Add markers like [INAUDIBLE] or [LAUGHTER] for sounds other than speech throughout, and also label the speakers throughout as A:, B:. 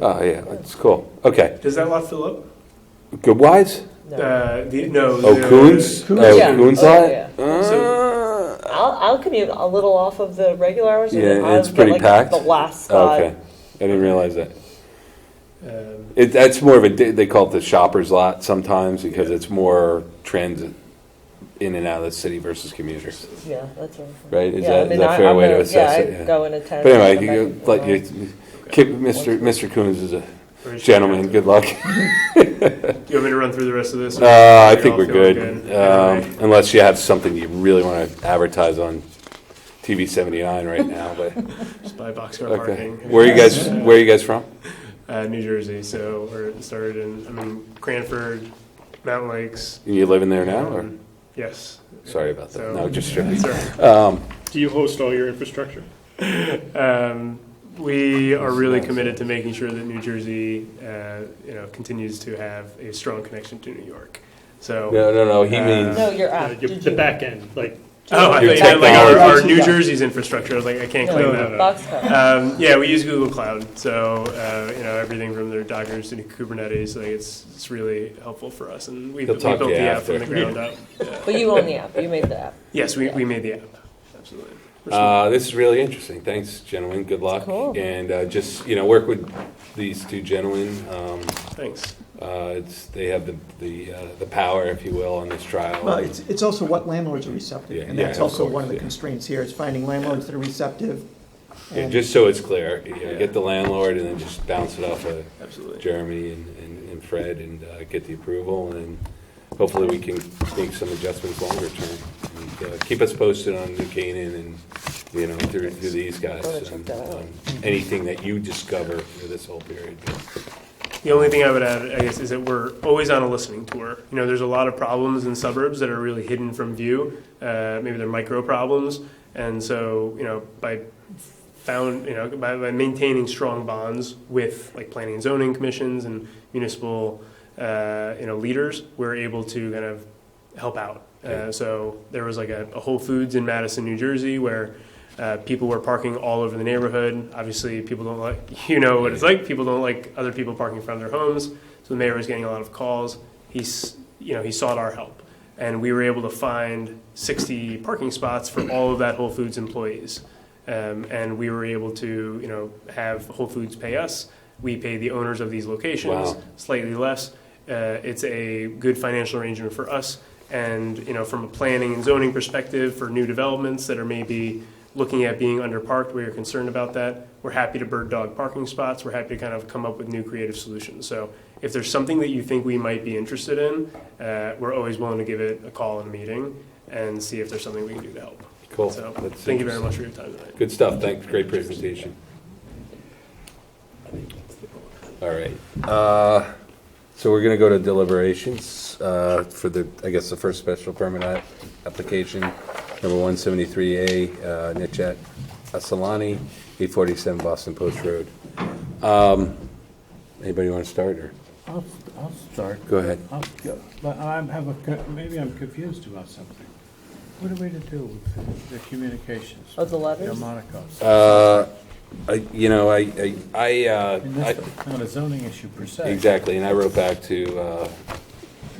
A: Oh, yeah, that's cool. Okay.
B: Does that lot fill up?
A: Good wise?
B: Uh, the, no.
A: Oh,
B: the-
A: Coons?
C: Yeah.
A: Oh, Coons
C: Oh,
A: lot?
C: yeah.
A: Ah.
C: I'll, I'll commute a little off of the regular hours. and
A: Yeah,
C: then I'll
A: it's
C: get,
A: pretty
C: like,
A: packed.
C: The last
A: Oh,
C: spot.
A: Okay. I didn't realize that.
B: um,
A: It, that's more of a, they call it the shopper's lot sometimes because it's more transit in and out of the city versus commuters,
C: Yeah, that's right.
A: right? Is
C: yeah, I
A: that, is
C: mean,
A: that
C: I-
A: a fair
C: I'm
A: way to
C: gonna-
A: assess
C: yeah,
A: it?
C: I
A: Yeah.
C: go in at ten.
A: But anyway,
C: come
A: you,
C: back
A: you-
C: and
A: like,
C: forth.
A: you, keep, Mr. Mr. Coons is a
B: or should-
A: gentleman. Good luck.
B: Um, You want me to run through the rest of this?
A: Uh, I
B: It
A: think
B: all
A: we're
B: feels
A: good,
B: Either
A: um, unless you have something you really want to advertise on TV seventy-nine right now, but,
B: way, Just buy boxcar
A: okay.
B: parking.
A: Where are you guys, where are you guys from?
B: Uh, New Jersey, so we're started in, I mean, Cranford, Mountain Lakes.
A: You living there now, or,
B: um, Yes.
A: sorry about that,
B: So-
A: no, just joking.
B: Sorry.
A: Um,
D: Do you host all your infrastructure?
B: Um, we are really committed to making sure that New Jersey, uh, you know, continues to have a strong connection to New York. So,
A: no, no, no, he
B: Uh,
A: means,
C: No, you're
D: Uh,
C: out.
D: your- The back end, like,
B: oh, I
A: Your
B: thought you meant like our, our New
D: technology.
B: Jersey's infrastructure. I was like, I can't claim that.
C: Boxcar.
B: Um, yeah, we use Google Cloud, so uh, you know everything from their Dockers to Kubernetes. Like it's it's really helpful for us, and we,
A: He'll
B: we
A: talk
B: built
A: to
B: the
A: you
B: app
A: after.
B: from the ground up.
C: But you own the app. You made the app.
B: Yes, we, we made the app. Absolutely. We're smart.
A: uh, this is really interesting, thanks, gentlemen, good luck.
C: Cool.
A: And, uh, just, you know, work with these two gentlemen, um,
B: Thanks.
A: uh, it's, they have the, the, uh, the power, if you will, on this trial.
E: Well, it's, it's also what landlords are
A: Yeah,
E: receptive, and
A: yeah,
E: that's
A: of
E: also
A: course,
E: one of the
A: yeah.
E: constraints here, is finding landlords that are receptive.
A: Yeah,
E: and-
A: just so it's clear, you know, get the landlord and then just bounce it off of
B: Absolutely.
A: Jeremy and, and and Fred and uh, get the approval, and hopefully we can make some adjustments longer term. And, uh, Keep us posted on New Canaan and, you know, through, through these guys.
C: Gotta check
A: and,
C: that out.
A: um, Anything that you discover through this whole period.
B: The only thing I would add, I guess, is that we're always on a listening tour. You know, there's a lot of problems in suburbs that are really hidden from view. Uh, maybe they're micro problems, and so you know, by found, you know, by, by maintaining strong bonds with like planning and zoning commissions and municipal, uh, you know, leaders, we're able to kind of help out.
A: Yeah.
B: Uh, so there was like a, a Whole Foods in Madison, New Jersey, where uh, people were parking all over the neighborhood. Obviously, people don't like, [LAUGHS] you know what it's like. People don't like other people parking in front of their homes. So the mayor was getting a lot of calls. He's, you know, he sought our help. And we were able to find 60 parking spots for all of that Whole Foods employees. Um, and we were able to, you know, have Whole Foods pay us. We pay the owners of these locations
A: Wow.
B: slightly less. Uh, it's a good financial arrangement for us. And, you know, from a planning and zoning perspective for new developments that are maybe looking at being underparked, where you're concerned about that, we're happy to bird dog parking spots. We're happy to kind of come up with new creative solutions. So if there's something that you think we might be interested in, uh, we're always willing to give it a call and a meeting and see if there's something we can do to help.
A: Cool.
B: So
A: That's
B: thank you very
A: interesting.
B: much for your time tonight.
A: Good stuff, thanks, great presentation. All right, uh, so we're gonna go to deliberations, uh, for the, I guess, the first special permit app- application, number one seventy-three A, uh, Nitchat Asalani, eight forty-seven Boston Post Road. Um, anybody wanna start, or,
F: I'll, I'll start.
A: go ahead.
F: I'll go. But I have a, co- maybe I'm confused about something. What are we to do with the communications?
C: Oh, the letters?
F: Delmonico's.
A: Uh, I, you know, I, I, I, uh,
F: I mean,
A: I-
F: that's not a zoning issue per se.
A: exactly, and I wrote back to, uh,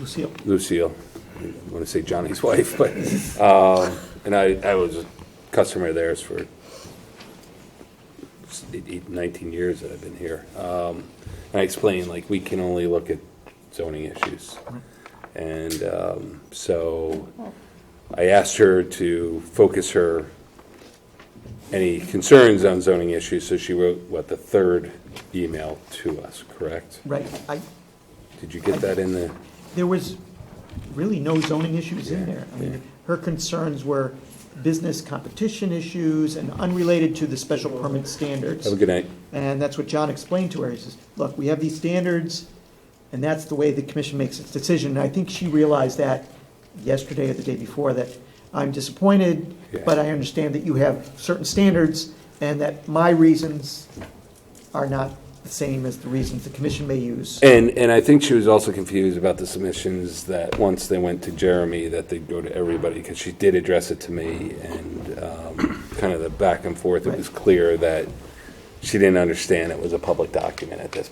E: Lucille.
A: Lucille, I want to say Johnny's [LAUGHS] wife, but, um, and I, I was a customer of theirs for s- eight- eight- 19 years that I've been here. Um, And I explained, like, we can only look at zoning issues. And um, so I asked her to focus her, any concerns on zoning issues, so she wrote, what, the third email to us, correct?
E: Right, I,
A: Did you get that in the?
E: there was really no zoning issues in there. I mean, her concerns were business competition issues and unrelated to the special permit standards.
A: Have a good night.
E: And that's what John explained to her. He says, look, we have these standards, and that's the way the commission makes its decision. And I think she realized that yesterday or the day before, that I'm disappointed,
A: Yeah.
E: but I understand that you have certain standards, and that my reasons are not the same as the reasons the commission may use.
A: And, and I think she was also confused about the submissions that once they went to Jeremy, that they'd go to everybody, because she did address it to me, and um, kind of the back and forth, it was clear that she didn't understand it was a public document at this